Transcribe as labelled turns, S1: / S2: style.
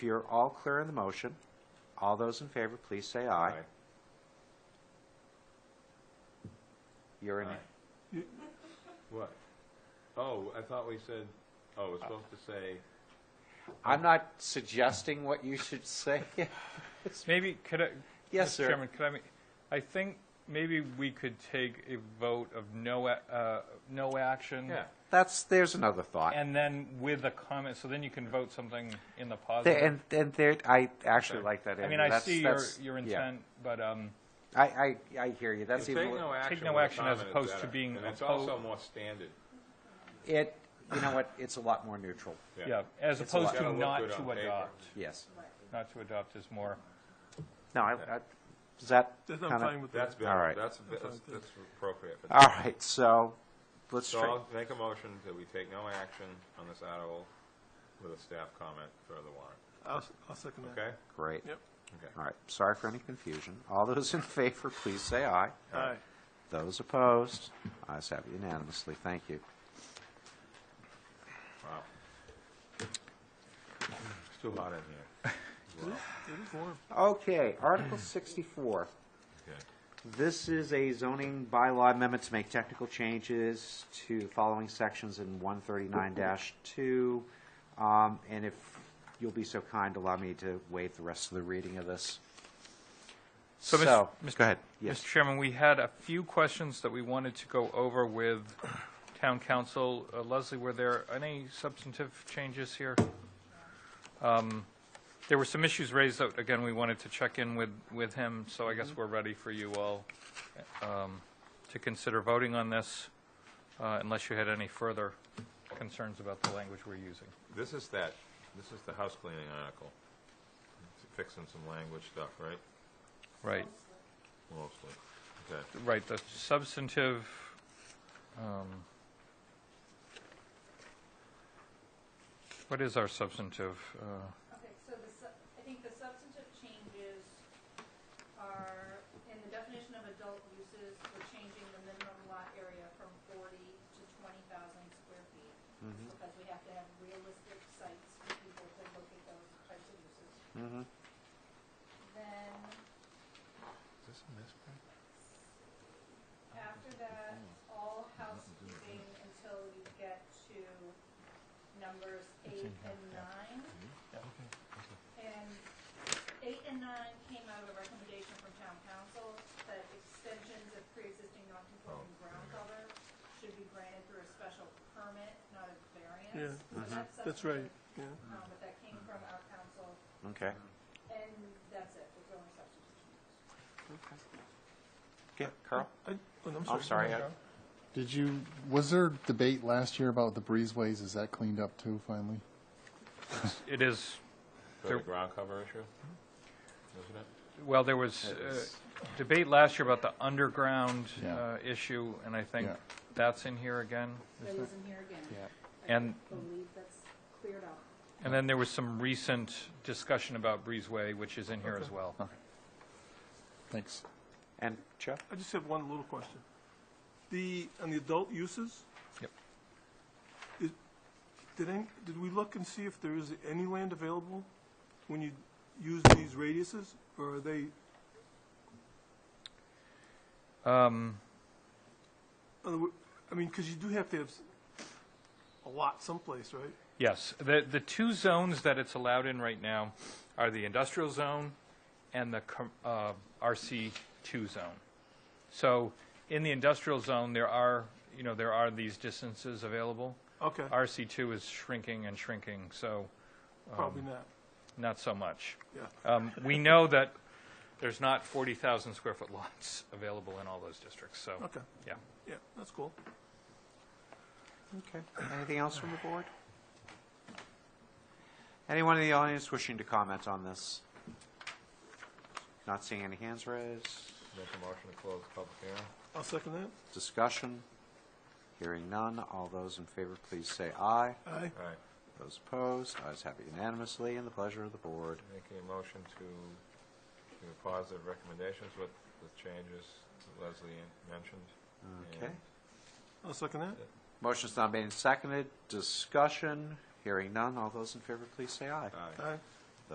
S1: If you're all clear on the motion, all those in favor, please say aye. You're in,
S2: Aye. What? Oh, I thought we said, oh, it's supposed to say,
S1: I'm not suggesting what you should say.
S3: Maybe, could I?
S1: Yes,
S3: Mr.
S1: sir.
S3: Chairman, could I, make- I think maybe we could take a vote of no, a- uh, no action.
S2: yeah,
S1: That's, there's another thought.
S3: And then with a comment, so then you can vote something in the
S1: There-
S3: positive.
S1: And, and there, I actually
S2: Okay.
S1: like that.
S3: I mean,
S1: Andrew.
S3: I
S1: That's-
S3: see your,
S1: that's-
S3: your
S1: yeah.
S3: intent, but, um,
S1: I, I, I hear you. That's
S2: take
S1: even,
S2: no action.
S3: no
S2: when a
S3: action as
S2: comment is
S3: opposed to
S2: better.
S3: being
S2: And it's
S3: oppo-
S2: also more standard.
S1: it, you know what, it's a lot more neutral.
S3: yeah, as
S1: It's a lot.
S3: opposed to
S2: Gotta look
S3: not
S2: good on
S3: to
S2: paper.
S3: adopt.
S1: Yes.
S3: Not to adopt is more,
S1: No, I, I, is that
S4: That's,
S1: kinda-
S4: I'm fine with
S2: That's
S4: that.
S1: All
S2: better,
S1: right.
S2: that's, that's that's appropriate. But-
S1: All right, so let's
S2: So
S1: try,
S2: I'll make a motion that we take no action on this article with a staff comment for the warrant,
S4: I'll, s- I'll second that.
S2: okay?
S1: great.
S4: Yep.
S1: All
S2: Okay.
S1: right, sorry for any confusion. All those in favor, please say aye.
S4: All right.
S1: Those opposed, ayes have it unanimously. Thank you.
S2: Wow. It's too hot in here. Wow.
S4: It is warm.
S1: Okay, Article 64.
S2: Okay.
S1: This is a zoning bylaw amendment to make technical changes to the following sections in 139-2. Um, And if you'll be so kind, allow me to waive the rest of the reading of this.
S3: So, Mr.
S1: So,
S3: Mr.
S1: go ahead.
S3: Mr.
S1: Yes,
S3: Chairman, we had a few questions that we wanted to go over with town council. Uh, Leslie, were there any substantive changes here? Um, There were some issues raised that, again, we wanted to check in with, with him, so I
S1: Mm-hmm.
S3: guess we're ready for you all um, to consider voting on this, uh, unless you had any further concerns about the language we're using.
S2: This is that, this is the house cleaning article. Fixing some language stuff, right?
S3: Right.
S2: Mostly. Okay.
S3: Right, the substantive, um, what is our substantive? uh,
S5: Okay, so the, sub- I think the substantive changes are, in the definition of adult uses, we're changing the minimum lot area from forty to twenty thousand square feet,
S1: Mm-hmm.
S5: because we have to have realistic sites for people to look at those types of uses.
S1: Mhm.
S5: Then,
S2: Is this in this print?
S5: after that, all housekeeping until you get to numbers eight and nine. And eight and nine came out of a recommendation from town council that extensions of pre-existing non-conforming ground cover should be granted through a special permit, not a variance.
S4: Yeah,
S5: So that's
S4: That's
S5: substantive,
S4: right, yeah.
S5: um, But that came from our council,
S1: okay.
S5: and that's it, it's only substantive changes.
S1: Yeah, Carl?
S4: I- oh,
S1: I'm sorry. I-
S6: Did you, was there debate last year about the breezeways? Is that cleaned up too finally?
S3: It is,
S2: For the
S3: There-
S2: ground cover issue? Isn't it?
S3: well, there was uh, debate last year about the underground
S6: Yeah.
S3: uh, issue, and I think
S6: Yeah.
S3: that's in here again.
S7: It wasn't here again.
S3: And,
S7: I believe that's cleared up.
S3: and then there was some recent discussion about Breezeway, which is in here as well.
S6: Thanks.
S1: And Joe?
S4: I just have one little question. The, on the adult uses?
S3: Yep.
S4: Did, did any, did we look and see if there is any land available when you use these radiuses? Or are they,
S3: Um,
S4: other wo- I mean, because you do have to have s- a lot someplace, right?
S3: Yes, the, the two zones that it's allowed in right now are the industrial zone and the com- uh, RC2 zone. So in the industrial zone, there are, you know, there are these distances available.
S4: Okay,
S3: RC2 is shrinking and shrinking, so
S1: um,
S4: probably not,
S3: not so much.
S4: yeah.
S3: Um, We know that there's not 40,000 square foot lots available in all those districts, so,
S4: Okay,
S3: yeah.
S4: yeah, that's cool.
S1: Okay. Anything else from the board? Anyone in the audience wishing to comment on this? Not seeing any hands raised.
S2: Make a motion to close the public hearing?
S4: I'll second that.
S1: Discussion? Hearing none. All those in favor, please say aye.
S4: Aye.
S2: All right,
S1: Those opposed, ayes have it unanimously, and the pleasure of the board.
S2: make a motion to give positive recommendations with the changes that Leslie mentioned.
S1: Okay.
S2: And
S4: I'll second that.
S1: Motion's not made and seconded. Discussion? Hearing none. All those in favor, please say aye.
S2: Aye.
S4: Aye.